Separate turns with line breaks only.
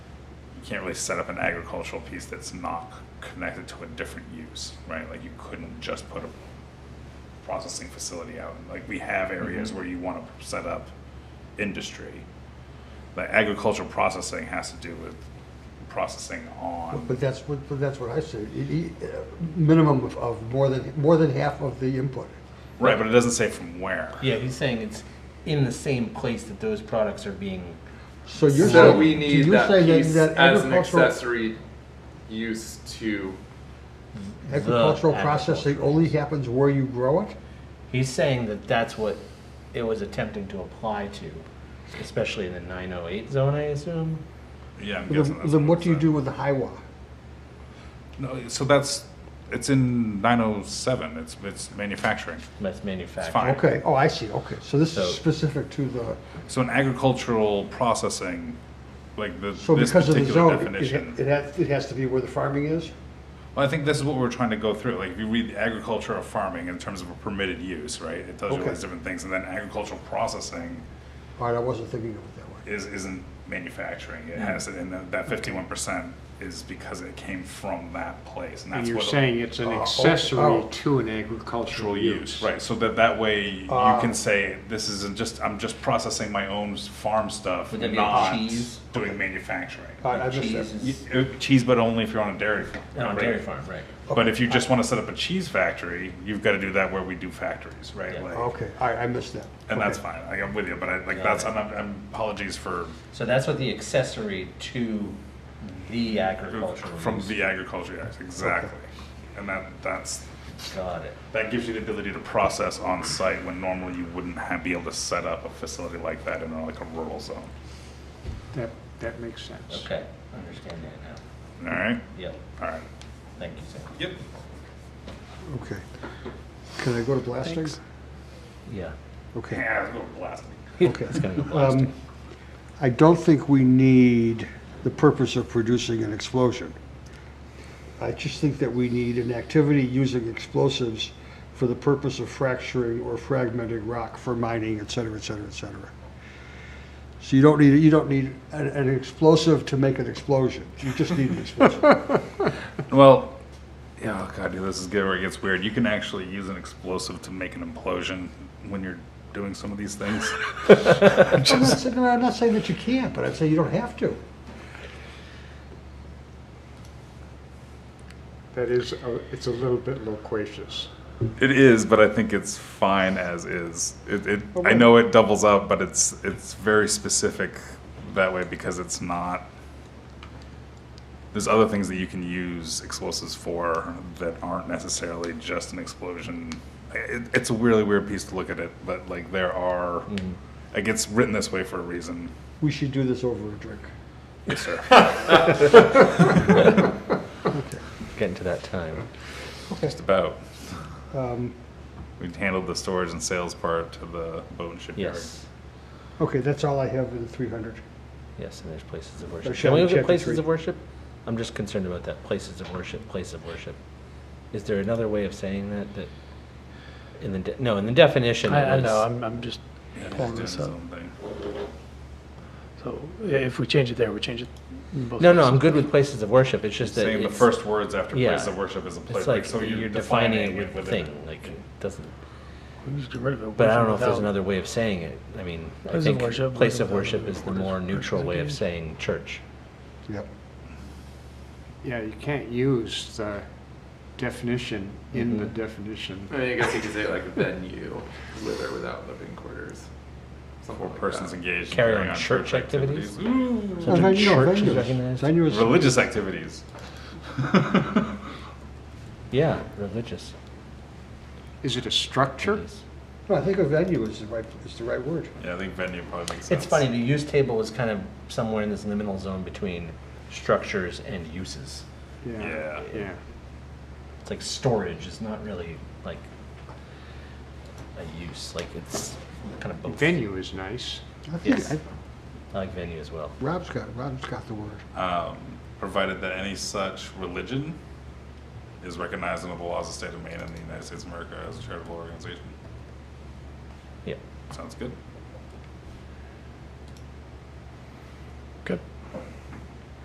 you can't really set up an agricultural piece that's not connected to a different use, right? Like you couldn't just put a processing facility out. Like we have
Mm-hmm.
areas where you want to set up industry. But agricultural processing has to do with processing on.
But that's what, but that's what I said, It- it- uh, minimum of, of more than, more than half of the input.
Right, but it doesn't say from where.
Yeah, he's saying it's in the same place that those products are being.
So you're
So
saying,
we
so
need
you're
that
saying
piece
that- that
as an
agricultural,
accessory use to,
agricultural
The
processing
agricultural.
only happens where you grow it?
He's saying that that's what it was attempting to apply to, especially in the 908 zone, I assume.
Yeah, I'm guessing
Then
that's
then
it
what do you
said.
do with the highway?
No, so that's, it's in nine oh seven, it's, it's manufacturing.
That's
fine.
manufacturing.
Okay, oh, I see, okay, so this
So-
is specific to the,
So an agricultural processing, like the,
so
this
because of the
particular
zone, it-
definition.
it, it has, it has to be where the farming is?
Well, I think this is what we're trying to go through. Like, if you read the agriculture or farming in terms of a permitted use, right? It tells you all
Okay.
these different things, and then agricultural processing
All right, I wasn't thinking of it that way.
is isn't manufacturing.
Mm.
It has it, and that fifty-one percent is because it came from that place, and that's
And you're
what it-
saying it's an
Oh, oh,
accessory
oh.
to an agricultural use. Ah.
Right, so that that way you
Uh,
can say this isn't just I'm just processing my own s- farm stuff,
Would that be like
not
cheese?
doing manufacturing.
Ah.
All right, I missed that.
cheese
Y-
is
uh, Cheese, but only if you're on a dairy farm.
On a
right?
Oh, dairy farm, right.
But if you just want to set up a cheese factory, you've got to do that where we do factories, right?
Yeah.
Like,
Okay, all right, I missed that.
And that's
Okay.
fine. Like, I'm with you, but I, like
Yeah.
that's I'm, I'm apologies for
So that's what the accessory to the agricultural
from
use.
the agriculture act exactly, and that that's
Got it.
that gives you the ability to process on site when normally you wouldn't have, be able to set up a facility like that in like a rural zone.
That, that makes sense.
Okay, understand that now.
All right,
Yep,
all right.
thank you, sir.
Yep.
Okay. Can I go to blasting?
Thanks.
Yeah.
Okay,
Yeah, it's a little blasting.
okay.
It's gonna go blasting.
Um, I don't think we need the purpose of producing an explosion. I just think that we need an activity using explosives for the purpose of fracturing or fragmenting rock for mining, et cetera, et cetera, et cetera. So you don't need, you don't need an, an explosive to make an explosion. You just need an explosive.
Well, yeah, oh god, dude, this is good where it gets weird. You can actually use an explosive to make an implosion when you're doing some of these things.
I'm not saying, I'm not saying that you can't, but I'd say you don't have to.
That is, a- it's a little bit loquacious.
It is, but I think it's fine as is. It, it I
Okay.
know it doubles up, but it's it's very specific that way because it's not. There's other things that you can use explosives for that aren't necessarily just an explosion. It, it's a really weird piece to look at it, but like there are, it gets written this way for a reason.
We should do this over a drink.
Yes, sir.
Getting to that time.
just about.
Um,
We handled the storage and sales part to the boat and shipyard.
Yes,
Okay, that's all I have in the 300.
yes, and there's places of worship.
shall
Can we
we
look
check
at
the
places
tree?
of worship? I'm just concerned about that, places of worship, place of worship. Is there another way of saying that, that, in the, de- no, in the definition
I, I
it was.
know, I'm, I'm just,
Yeah, he's
Pulling
doing
this
his
up.
own thing.
so yeah, if we change it there, we change it. in both
No, no, I'm
places.
good with places of worship, it's just that
saying the
it's-
first words after
yeah.
place of worship is a place
It's like,
so
you're defining it with thing, like, it doesn't,
We just get rid of it.
but I
with
don't
or
know if there's
without.
another way of saying it. I mean, I
Place of
think
worship,
place
with or
of
without
worship is the
orders,
more neutral way of
representation.
saying church.
Yep.
Yeah, you can't use the definition in the definition.
I mean, I guess you could say like venue, with or without living quarters. Something
Or
like
persons
that.
engaged in
Carry
carrying
on church activities?
Ooh.
So
Uh,
the
venue, no,
church is
venues.
recognized?
Venues-
Religious activities.
Yeah, religious.
Is it a structure?
Yes.
No, I think a venue is the right, is the right word.
Yeah, I think venue probably makes sense.
It's funny, the use table was kind of somewhere in this liminal zone between structures and uses.
Yeah.
Yeah.
It's like storage is not really like a use, like it's kind of both.
Venue is nice.
I think,
Yes.
I-
I like venue as well.
Rob's got, Rob's got the word.
Um, provided that any such religion is recognized under the laws of the state of Maine and the United States of America as a charitable organization.
Yeah.
Sounds good.